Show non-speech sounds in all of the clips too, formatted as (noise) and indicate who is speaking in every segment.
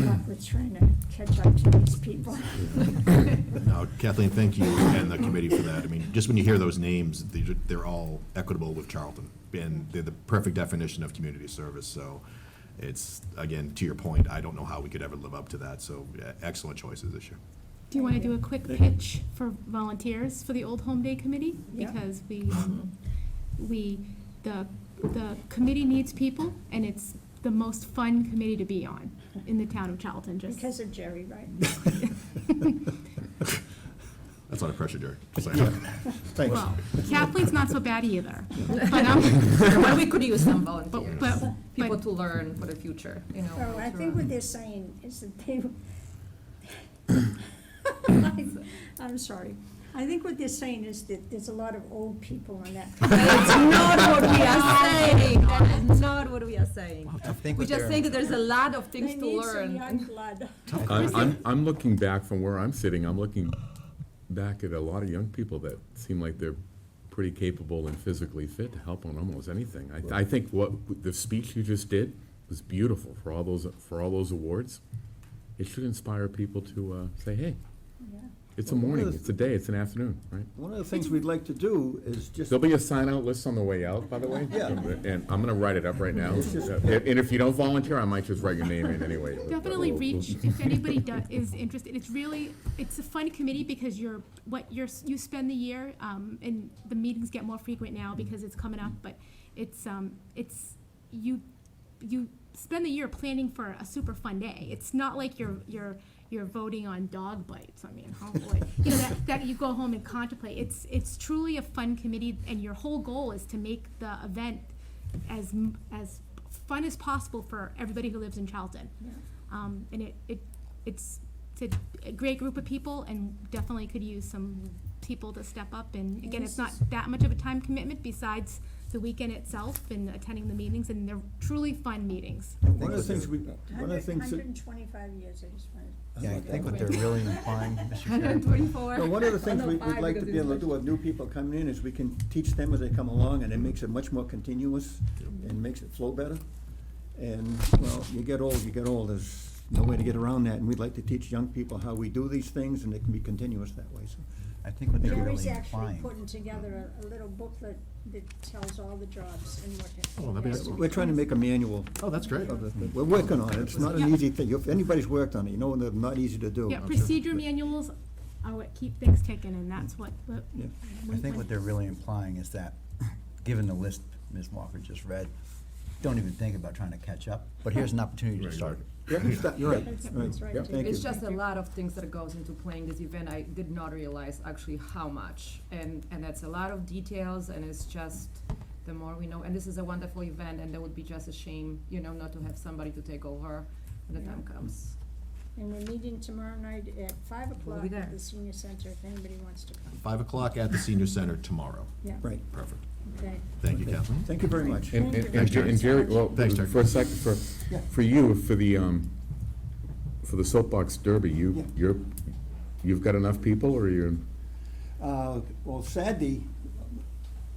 Speaker 1: we're trying to catch up to these people.
Speaker 2: No, Kathleen, thank you and the committee for that. I mean, just when you hear those names, these are- they're all equitable with Charlton. And they're the perfect definition of community service, so it's, again, to your point, I don't know how we could ever live up to that, so yeah, excellent choices this year.
Speaker 3: Do you want to do a quick pitch for volunteers for the Old Home Day Committee?
Speaker 1: Yeah.
Speaker 3: Because
Speaker 2: (laughs)
Speaker 3: we, um, we, the, the committee needs people, and it's the most fun committee to be on in the town of Charlton, just.
Speaker 1: Because of Jerry, right?
Speaker 2: That's a lot of pressure, Jerry. Sorry.
Speaker 4: (laughs)
Speaker 5: Thanks.
Speaker 3: Well, Kathleen's not so bad either, but, (laughs) um,
Speaker 6: Well, we could use some
Speaker 3: but,
Speaker 6: volunteers,
Speaker 3: but,
Speaker 6: people
Speaker 3: but
Speaker 6: to learn for the future, you know.
Speaker 1: So I
Speaker 6: to,
Speaker 1: think
Speaker 6: um, (laughs)
Speaker 1: what they're saying is that they.
Speaker 6: (coughs)
Speaker 1: I'm sorry. I think what they're saying is that there's a lot of old people on
Speaker 6: (laughs)
Speaker 1: that.
Speaker 6: That's not
Speaker 1: (laughs)
Speaker 6: what we
Speaker 3: (laughs)
Speaker 6: are saying, that is not what we are saying.
Speaker 5: I think
Speaker 6: We
Speaker 5: what
Speaker 6: just
Speaker 5: they're-
Speaker 6: say that there's a lot of things
Speaker 1: They
Speaker 6: to
Speaker 1: need some
Speaker 6: learn.
Speaker 1: young
Speaker 6: (laughs)
Speaker 1: blood.
Speaker 7: I'm, I'm, I'm looking back from where I'm sitting, I'm looking back at a lot of young people that seem like they're pretty capable and physically fit to help on almost anything. I, I think what, the speech you just did was beautiful for all those, for all those awards. It should inspire people to, uh, say, hey, it's a
Speaker 5: Well, one of
Speaker 7: morning,
Speaker 5: the-
Speaker 7: it's a day, it's an afternoon, right?
Speaker 5: One of the things we'd like to do is just,
Speaker 7: There'll be a sign-out list on the way out, by the way.
Speaker 5: Yeah.
Speaker 7: And I'm gonna write it up right now. And and if you don't volunteer, I might just write your name in anyway. but- but
Speaker 3: definitely
Speaker 7: we'll- we'll-
Speaker 3: reach, if anybody does, is interested, it's really, it's a fun committee because you're, what you're, you spend the year, um, and the meetings get more frequent now because it's coming up, but it's, um, it's, you, you spend the year planning for a super fun day. It's not like you're, you're, you're voting on dog bites, I mean, oh boy. You know, that, that you go home and contemplate. It's, it's truly a fun committee, and your whole goal is to make the event as, m- as fun as possible for everybody who lives in Charlton. Um, and it, it, it's, it's a, a great group of people and definitely could use some people to step up. And again, it's not that much of a time commitment besides the weekend itself and attending the meetings, and they're truly fun meetings.
Speaker 4: Oh,
Speaker 5: one of the things we, one of the
Speaker 1: Hundred,
Speaker 5: things
Speaker 1: hundred
Speaker 5: that.
Speaker 1: and twenty-five years, I just wanted.
Speaker 4: Yeah, I think what they're really implying, (laughs) Mr. Chair,
Speaker 6: 124.
Speaker 5: No, one of the things we- we'd
Speaker 6: 105,
Speaker 5: like to
Speaker 6: because
Speaker 5: be
Speaker 6: it's
Speaker 5: able to do
Speaker 6: much-
Speaker 5: with new people coming in is we can teach them as they come along, and it makes it much more continuous and makes it flow better. And, well, you get old, you get old, there's no way to get around that, and we'd like to teach young people how we do these things, and it can be continuous that way, so.
Speaker 4: I think what they're
Speaker 1: Jerry's
Speaker 4: really
Speaker 1: actually
Speaker 4: implying.
Speaker 1: putting together a, a little booklet that tells all the jobs and what. it-
Speaker 2: Oh, that'd be excellent.
Speaker 5: We're trying to make a manual
Speaker 2: Oh, that's great.
Speaker 5: of the, thing. we're working on it, it's not an
Speaker 3: Yeah.
Speaker 5: easy thing, if anybody's worked on it, you know, and they're not easy to do.
Speaker 3: Yeah, procedure manuals are what keep things ticking, and that's what, what.
Speaker 5: Yeah.
Speaker 4: I think what they're really implying is that, given the list Ms. Walker just read, don't even think about trying to catch up, but here's an opportunity to
Speaker 7: Right,
Speaker 4: start.
Speaker 5: Yeah, stop, you're right,
Speaker 1: That's-
Speaker 5: right,
Speaker 1: that's right,
Speaker 5: Yep.
Speaker 1: Jerry.
Speaker 5: thank you.
Speaker 6: It's just a lot of things that goes into playing this event. I did not realize actually how much. And, and that's a lot of details and it's just, the more we know, and this is a wonderful event and that would be just a shame, you know, not to have somebody to take over when the time comes.
Speaker 1: And we're meeting tomorrow night at five
Speaker 6: We'll
Speaker 1: o'clock
Speaker 6: be
Speaker 1: at
Speaker 6: there.
Speaker 1: the senior center if anybody wants to come.
Speaker 2: Five o'clock at the senior center tomorrow.
Speaker 1: Yeah,
Speaker 5: Right,
Speaker 2: Perfect.
Speaker 1: okay.
Speaker 2: Thank you, Kathleen.
Speaker 5: thank you very much.
Speaker 7: And, and-
Speaker 2: Thanks,
Speaker 7: and
Speaker 2: Jerry.
Speaker 7: and Jerry, well,
Speaker 2: Thanks, Jerry.
Speaker 7: for a second, for,
Speaker 5: Yeah.
Speaker 7: for you, for the, um, for the soapbox derby,
Speaker 5: Yeah.
Speaker 7: you, you're, you've got enough people, or you're,
Speaker 5: Uh, Well, Saturday,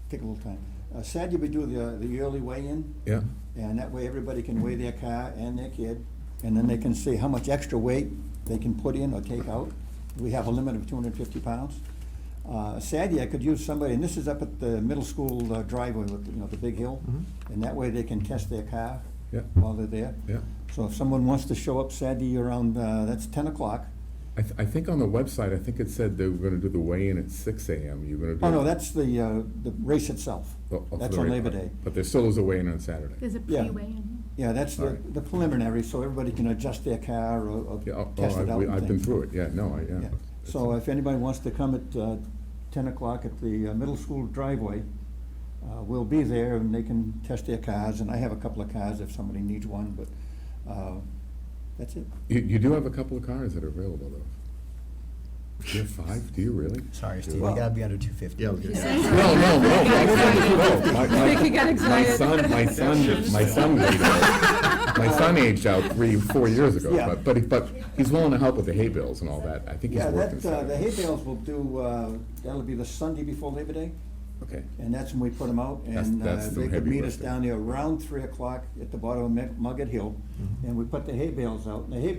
Speaker 5: take a little time. Uh, Saturday, we do the, the early weigh-in,
Speaker 7: yeah?
Speaker 5: and that way everybody can weigh their car and their kid, and then they can see how much extra weight they can put in or take out. We have a limit of two hundred and fifty pounds. Uh, Saturday, I could use somebody, and this is up at the middle school uh, driveway with, you know, the big hill. And that way they can test their car
Speaker 7: Mm-hmm. Yeah.
Speaker 5: while they're there.
Speaker 7: Yeah.
Speaker 5: So if someone wants to show up Saturday around, uh, that's ten o'clock.
Speaker 7: I, th- I think on the website, I think it said they were gonna do the weigh-in at six AM, you're gonna do.
Speaker 5: Oh, no, that's the, uh, the race itself.
Speaker 7: Oh, oh, for
Speaker 5: That's
Speaker 7: the
Speaker 5: on
Speaker 7: right
Speaker 5: Labor
Speaker 7: part.
Speaker 5: Day.
Speaker 7: But there still is a weigh-in on Saturday.
Speaker 3: There's a
Speaker 5: Yeah.
Speaker 3: pre-way in.
Speaker 5: Yeah, that's
Speaker 7: All
Speaker 5: the,
Speaker 7: right.
Speaker 5: the preliminary, so everybody can adjust their car or,
Speaker 7: Yeah,
Speaker 5: or
Speaker 7: oh, oh,
Speaker 5: test it
Speaker 7: I've,
Speaker 5: out
Speaker 7: we-
Speaker 5: and
Speaker 7: I've been
Speaker 5: things.
Speaker 7: through it, yeah, no, I, yeah.
Speaker 5: Yeah. So if anybody wants to come at, uh, ten o'clock at the uh, middle school driveway, uh, we'll be there and they can test their cars, and I have a couple of cars if somebody needs one, but, uh, that's it.
Speaker 7: You, you do have a couple of cars that are available, though. Do you have five, do you really?
Speaker 4: Sorry, Steve, you
Speaker 5: Well-
Speaker 4: gotta be under two fifty.
Speaker 2: Yeah, okay.
Speaker 7: No, no, no, no, no, my- my-
Speaker 6: Ricky got
Speaker 7: My
Speaker 6: excited.
Speaker 7: son, my son, my son aged out. My son aged out three, four years ago,
Speaker 5: Yeah.
Speaker 7: but, but, he- but he's willing to help with the hay bales and all that. I think he's
Speaker 5: Yeah,
Speaker 7: worked in
Speaker 5: that, uh, the hay
Speaker 7: Saturday.
Speaker 5: bales will do, uh, that'll be the Sunday before Labor Day.
Speaker 7: Okay,
Speaker 5: And that's when we put them out,
Speaker 7: That's-
Speaker 5: and uh,
Speaker 7: that's the
Speaker 5: they could
Speaker 7: heavy
Speaker 5: meet us
Speaker 7: lifting. Mm-hmm.
Speaker 5: down there around three o'clock at the bottom of Mugget Hill. And we put the hay bales out, and the hay